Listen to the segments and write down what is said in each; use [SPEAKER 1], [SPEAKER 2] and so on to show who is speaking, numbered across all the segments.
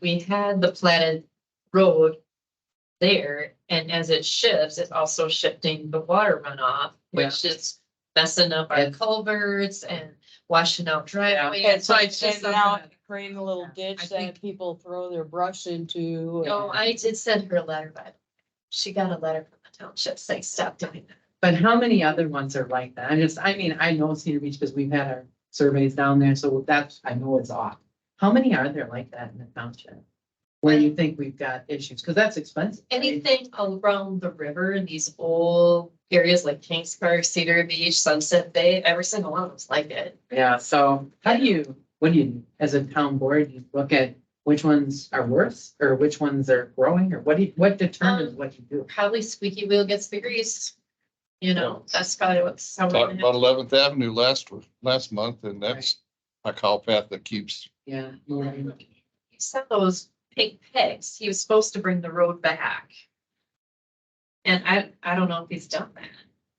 [SPEAKER 1] we had the platted road there, and as it shifts, it's also shifting the water runoff, which is messing up our
[SPEAKER 2] Yeah.
[SPEAKER 1] culverts and washing out driveways.
[SPEAKER 3] And so it's
[SPEAKER 1] And
[SPEAKER 3] just
[SPEAKER 1] now-
[SPEAKER 3] now creating a little
[SPEAKER 2] I
[SPEAKER 3] ditch
[SPEAKER 2] think-
[SPEAKER 3] that people throw their brush into.
[SPEAKER 1] No, I did send her a letter, but she got a letter from the township saying, stop doing that.
[SPEAKER 2] But how many other ones are like that? I just, I mean, I know Cedar Beach because we've had our surveys down there, so that's, I know it's off. How many are there like that in the township? Where you think we've got issues, because that's expensive. right?
[SPEAKER 1] Anything around the river in these old areas like Kings Park, Cedar Beach, Sunset Bay, every single one of them's like it.
[SPEAKER 2] Yeah, so how do you, what do you, as a town board, you look at which ones are worse or which ones are growing or what do you, what determines
[SPEAKER 1] Um,
[SPEAKER 2] what you do?
[SPEAKER 1] Probably squeaky wheel gets the grease. You know, that's probably what's. how we're
[SPEAKER 4] Talked
[SPEAKER 1] gonna
[SPEAKER 4] about Eleventh Avenue last, w- last month, and that's a cow path that keeps,
[SPEAKER 2] Yeah. Maureen.
[SPEAKER 1] have- He sent those pink pigs. He was supposed to bring the road back. And I, I don't know if he's done that.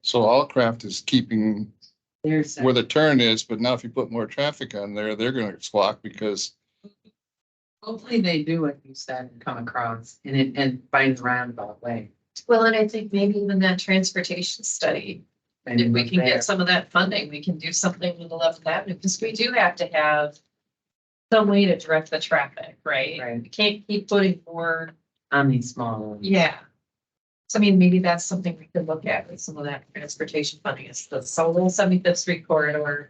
[SPEAKER 4] so Allcraft is keeping
[SPEAKER 2] There's.
[SPEAKER 4] where the turn is, but now if you put more traffic on there, they're gonna squawk because
[SPEAKER 2] Hopefully they do what you said and come across and it, and find the roundabout way.
[SPEAKER 1] Well, and I think maybe even that transportation study
[SPEAKER 2] And
[SPEAKER 1] If we can
[SPEAKER 2] there.
[SPEAKER 1] get some of that funding, we can do something with eleventh avenue, because we do have to have some way to direct the traffic, right?
[SPEAKER 2] Right.
[SPEAKER 1] We can't keep putting more,
[SPEAKER 2] on these small ones.
[SPEAKER 1] yeah. So I mean, maybe that's something we could look at with some of that transportation funding, is the Seoul seventy-fifth street corridor.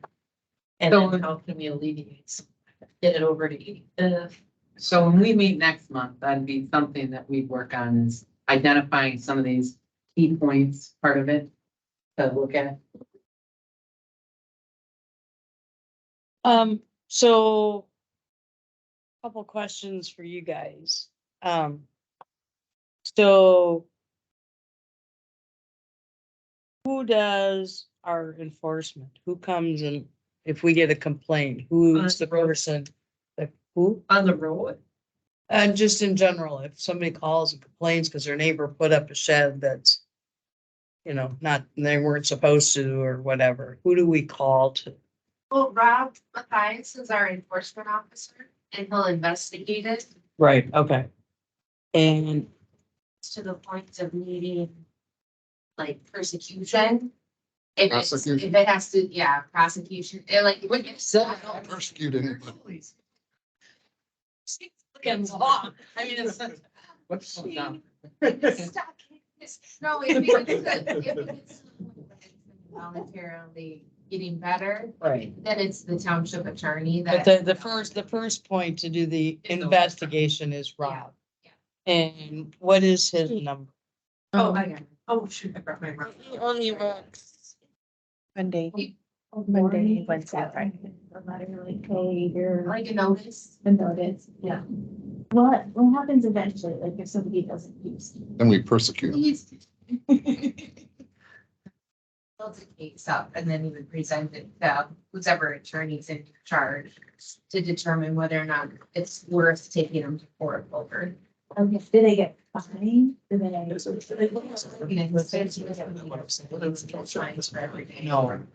[SPEAKER 1] And then
[SPEAKER 2] So-
[SPEAKER 1] how can we alleviate, some- get it over to E eighty-fifth?
[SPEAKER 2] So when we meet next month, that'd be something that we'd work on is identifying some of these key points, part of it to look at.
[SPEAKER 3] Um, so. Couple questions for you guys. Um. So. Who does our enforcement? Who comes and if we get a complaint, who's
[SPEAKER 1] Uh,
[SPEAKER 3] the person? that who?
[SPEAKER 1] On the road,
[SPEAKER 3] And just in general, if somebody calls and complains because their neighbor put up a shed that's. You know, not, they weren't supposed to or whatever, who do we call to?
[SPEAKER 5] Well, Rob Mathias is our enforcement officer and he'll investigate it
[SPEAKER 3] Right, okay. And
[SPEAKER 5] to the point of needing like persecution. If it's, if
[SPEAKER 4] Prosecution.
[SPEAKER 5] it has to, yeah, prosecution, and like when you said.
[SPEAKER 4] I don't persecute anybody.
[SPEAKER 5] It's law. I mean, it's.
[SPEAKER 2] What's going on?
[SPEAKER 5] Stop kicking this. No, if it's, if it's voluntarily getting better,
[SPEAKER 3] Right,
[SPEAKER 5] then it's the township attorney
[SPEAKER 3] but
[SPEAKER 5] that.
[SPEAKER 3] the, the first, the first point to do the
[SPEAKER 1] Is the last one.
[SPEAKER 3] investigation is Rob. And what is his number?
[SPEAKER 1] oh, I, oh, shoot, I brought my.
[SPEAKER 3] Only
[SPEAKER 6] Monday.
[SPEAKER 5] He-
[SPEAKER 6] Monday, Wednesday, Friday.
[SPEAKER 5] Like a notice.
[SPEAKER 6] The notice, yeah. What, what happens eventually, like if somebody doesn't use?
[SPEAKER 4] then we persecute. them.
[SPEAKER 5] Please. Build the case up and then you would present it to whoever attorney's in charge to determine whether or not it's worth taking them to court over.
[SPEAKER 6] Okay, did they get fined? Did they?
[SPEAKER 2] No. Um,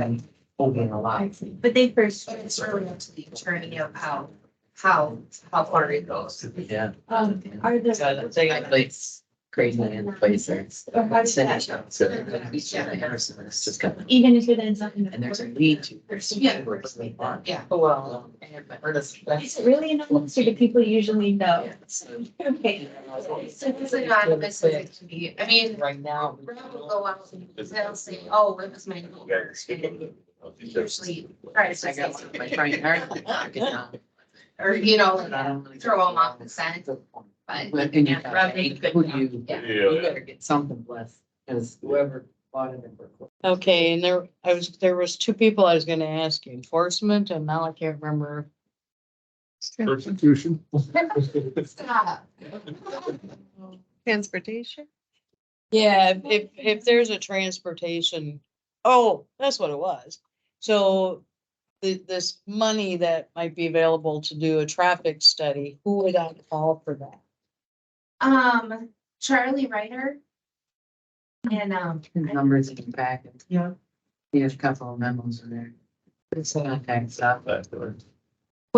[SPEAKER 6] Um,
[SPEAKER 2] Open a lot.
[SPEAKER 5] But they first, it's really up to the attorney of how, how, how far it goes.
[SPEAKER 2] Yeah.
[SPEAKER 6] Um, are
[SPEAKER 2] So
[SPEAKER 6] there?
[SPEAKER 2] that's a place, crazy in place there.
[SPEAKER 6] Or how does that-
[SPEAKER 2] So it's just got-
[SPEAKER 6] Even if it ends up in. the
[SPEAKER 2] And there's a
[SPEAKER 6] court?
[SPEAKER 2] lead to.
[SPEAKER 5] Yeah. Yeah.
[SPEAKER 2] Well.
[SPEAKER 6] Is it really anonymous or do people usually know? Okay.
[SPEAKER 5] So it's anonymous as it can be. I mean,
[SPEAKER 2] Right now.
[SPEAKER 5] Rob will go out and they'll say, oh, it was my neighbor. And Usually, tries to say something, or, you know, like, throw them off the scent, but.
[SPEAKER 2] And you
[SPEAKER 5] yeah, Rob made a
[SPEAKER 2] got,
[SPEAKER 5] good
[SPEAKER 2] who
[SPEAKER 5] job.
[SPEAKER 2] do you,
[SPEAKER 5] Yeah.
[SPEAKER 2] you better get something blessed, because whoever bought it.
[SPEAKER 3] Okay, and there, I was, there was two people I was gonna ask you, enforcement, and now I can't remember.
[SPEAKER 4] Persecution.
[SPEAKER 5] Stop.
[SPEAKER 6] Transportation?
[SPEAKER 3] Yeah, if- if, if there's a transportation, oh, that's what it was. So the, this money that might be available to do a traffic study, who would I call for that?
[SPEAKER 5] Um, Charlie Ryder. And, um,
[SPEAKER 2] Numbers in the back, and
[SPEAKER 1] Yeah.
[SPEAKER 2] uh, he has a couple of memos in there. It's not tax stuff.